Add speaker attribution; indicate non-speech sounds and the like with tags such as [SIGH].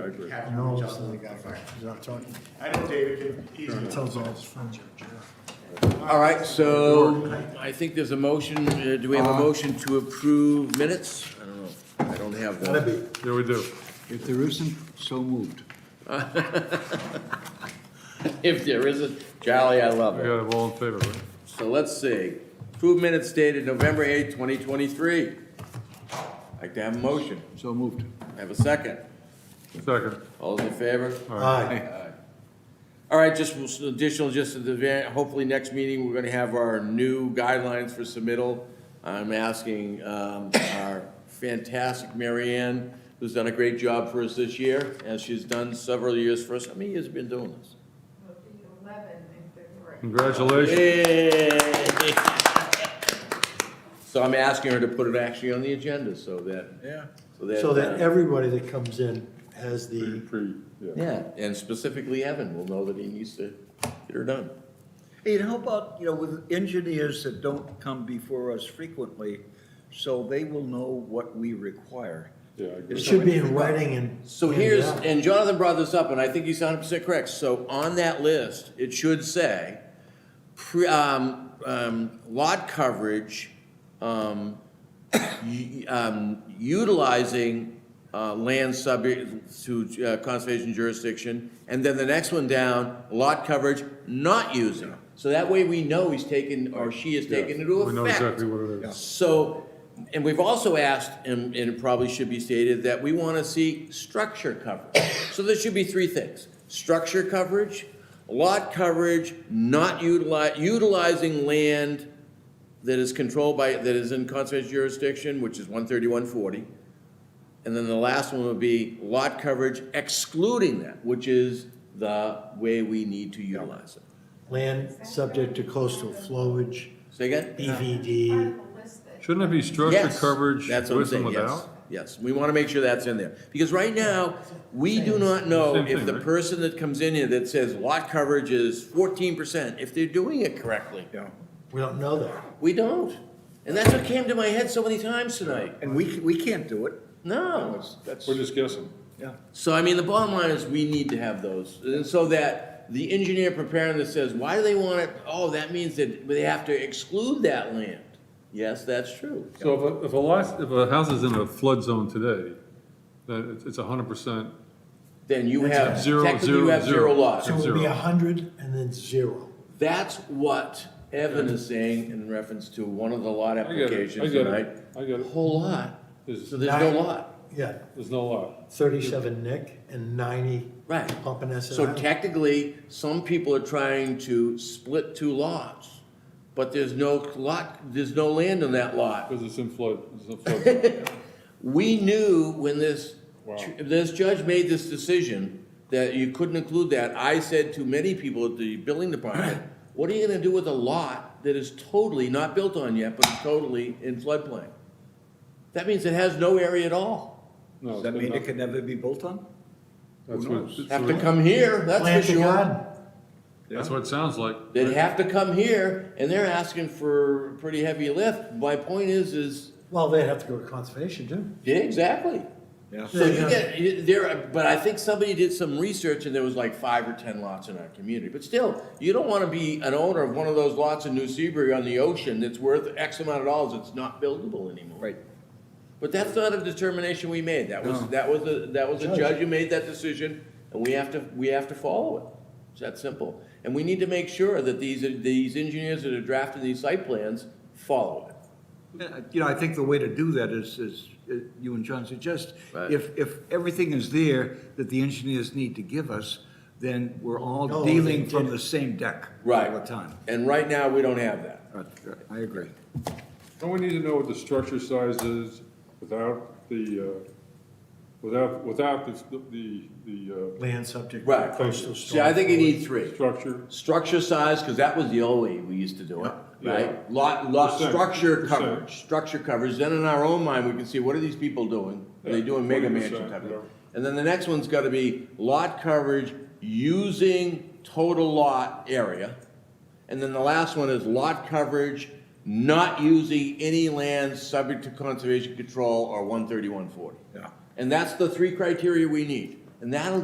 Speaker 1: I agree.
Speaker 2: have him
Speaker 3: No,
Speaker 2: reach
Speaker 3: it's
Speaker 2: out to the
Speaker 3: not,
Speaker 2: guy.
Speaker 3: it's not Tony.
Speaker 2: I know David can easily.
Speaker 3: Tells all his friends.
Speaker 4: All right, so I think there's a motion, uh, do we have a motion to approve minutes? I don't know, I don't have that.
Speaker 1: Yeah, we do.
Speaker 5: If there isn't, so moved.
Speaker 4: If there isn't, Charlie, I love
Speaker 1: We
Speaker 4: it.
Speaker 1: got it all in favor, right?
Speaker 4: So let's see, approve minutes dated November 8, 2023. Like to have a motion,
Speaker 5: So moved.
Speaker 4: have a second.
Speaker 1: Second.
Speaker 4: All those in favor?
Speaker 3: Aye.
Speaker 4: All right, just we'll- some additional, just at the, very- hopefully next meeting, we're gonna have our new guidelines for submittal. I'm asking, um, our fantastic Mary Ann, who's done a great job for us this year, as she's done several years for us. How many years have you been doing this?
Speaker 6: Will be eleven in February.
Speaker 1: Hmm. Congratulations.
Speaker 4: Yay! So I'm asking her to put it actually on the agenda, so that. Yeah. So that.
Speaker 3: So that
Speaker 4: uh,
Speaker 3: everybody that comes in has the,
Speaker 1: Pre- yeah.
Speaker 4: Yeah, and specifically Evan will know that he needs to get her done.
Speaker 5: And how about, you know, with engineers that don't come before us frequently, so they will know what we require.
Speaker 1: Yeah, I
Speaker 3: it
Speaker 1: agree.
Speaker 3: should be in writing and.
Speaker 4: So
Speaker 3: and,
Speaker 4: here's,
Speaker 3: yeah.
Speaker 4: and Jonathan brought this up, and I think he's hundred percent correct, so on that list, it should say, pre, um, um, lot coverage, um, u- um, utilizing, uh, land subject to uh, conservation jurisdiction, and then the next one down, lot coverage not using. So that way we know he's taken, or she is taken into
Speaker 1: We
Speaker 4: effect.
Speaker 1: know exactly what it is.
Speaker 4: So, and we've also asked, and, and it probably should be stated, that we want to see structure coverage. So there should be three things, structure coverage, lot coverage, not utilize, utilizing land that is controlled by, that is in conservation jurisdiction, which is one thirty-one forty. And then the last one would be lot coverage excluding that, which is the way we need to utilize it.
Speaker 3: Land subject to coastal flowage, E
Speaker 4: Say again?
Speaker 3: BVD.
Speaker 6: Will list it.
Speaker 1: Shouldn't it be structure
Speaker 4: Yes,
Speaker 1: coverage
Speaker 4: that's
Speaker 1: with
Speaker 4: what I'm
Speaker 1: and
Speaker 4: saying, yes,
Speaker 1: without?
Speaker 4: yes. We want to make sure that's in there. Because right now, we do not know
Speaker 1: Same
Speaker 4: if
Speaker 1: thing,
Speaker 4: the
Speaker 1: right?
Speaker 4: person that comes in here that says lot coverage is fourteen percent, if they're doing it correctly.
Speaker 5: Yeah.
Speaker 3: We don't know that.
Speaker 4: We don't. And that's what came to my head so many times tonight.
Speaker 5: And we, we can't do it.
Speaker 4: No.
Speaker 5: That's,
Speaker 1: We're just guessing.
Speaker 5: yeah.
Speaker 4: So I mean, the bottom line is we need to have those. And so that the engineer preparing this says, why do they want it? Oh, that means that they have to exclude that land. Yes, that's true.
Speaker 1: So if a, if a lot, if a house is in a flood zone today, then it's, it's hundred percent,
Speaker 4: Then you have,
Speaker 1: Zero,
Speaker 4: technically
Speaker 1: zero,
Speaker 4: you have zero
Speaker 1: zero.
Speaker 4: lots.
Speaker 3: So it would be
Speaker 1: Zero.
Speaker 3: a hundred and then zero.
Speaker 4: That's what Evan is saying in reference to one of the lot
Speaker 1: I get it, I
Speaker 4: applications
Speaker 1: get
Speaker 4: tonight.
Speaker 1: it, I get
Speaker 4: A
Speaker 1: it.
Speaker 4: whole lot,
Speaker 1: There's,
Speaker 4: so there's no
Speaker 3: Nine.
Speaker 4: lot,
Speaker 3: Yeah,
Speaker 1: there's no lot.
Speaker 3: thirty-seven Nick and ninety
Speaker 4: right.
Speaker 3: Pompanesett
Speaker 4: So
Speaker 3: Island.
Speaker 4: technically, some people are trying to split two lots, but there's no lot, there's no land on that lot.
Speaker 1: Because it's in flood, it's in flood. zone. [LAUGHS]
Speaker 4: We knew when this,
Speaker 1: Wow.
Speaker 4: this judge made this decision that you couldn't include that. I said to many people at the building department, what are you gonna do with a lot that is totally not built on yet, but is totally in floodplain? That means it has no area at all.
Speaker 1: No,
Speaker 5: Does that
Speaker 1: it's
Speaker 5: mean
Speaker 1: not-
Speaker 5: it can never be built on?
Speaker 1: That's
Speaker 5: Who
Speaker 1: what,
Speaker 5: knows?
Speaker 4: Have to come here,
Speaker 3: Plant
Speaker 4: that's for
Speaker 3: a
Speaker 4: sure.
Speaker 3: garden.
Speaker 1: that's what it sounds like.
Speaker 4: They'd have to come here, and they're asking for a pretty heavy lift. My point is, is,
Speaker 3: Well, they'd have to go to conservation too.
Speaker 4: yeah, exactly.
Speaker 5: Yeah.
Speaker 4: So you get, you- there, but I think somebody did some research and there was like five or ten lots in our community. But still, you don't wanna be an owner of one of those lots in New Seabury on the ocean that's worth X amount of dollars, it's not buildable anymore.
Speaker 5: Right.
Speaker 4: But that's not a determination we made, that was,
Speaker 5: No.
Speaker 4: that was, a that was a
Speaker 3: Judge.
Speaker 4: judge who made that decision, and we have to, we have to follow it. It's that simple. And we need to make sure that these, these engineers that are drafting these site plans follow it.
Speaker 5: Yeah, You know, I think the way to do that is, is, uh, you and John suggest,
Speaker 4: Right.
Speaker 5: if, if everything is there that the engineers need to give us, then we're all
Speaker 3: No, they
Speaker 5: dealing from
Speaker 3: did.
Speaker 5: the same deck
Speaker 4: Right.
Speaker 5: all the time.
Speaker 4: And right now, we don't have that.
Speaker 5: Uh, I agree.
Speaker 1: Don't we need to know what the structure size is without the, uh, without, without the, the, the,
Speaker 3: Land subject
Speaker 4: Right.
Speaker 3: to coastal
Speaker 4: See, I
Speaker 3: storm.
Speaker 4: think you need
Speaker 1: uh,
Speaker 4: three.
Speaker 1: structure?
Speaker 4: Structure size, because that was the old way we used to do it,
Speaker 1: Yeah.
Speaker 4: right? Lot, lot,
Speaker 1: Percent,
Speaker 4: structure
Speaker 1: percent.
Speaker 4: coverage, structure coverage, then in our own mind, we can see, what are these people doing? Are they
Speaker 1: Yeah,
Speaker 4: doing mega
Speaker 1: 20%,
Speaker 4: mansion type of
Speaker 1: yeah.
Speaker 4: thing? And then the next one's gotta be lot coverage using total lot area. And then the last one is lot coverage not using any land subject to conservation control or one thirty-one forty.
Speaker 5: Yeah.
Speaker 4: And that's the three criteria we need. And that'll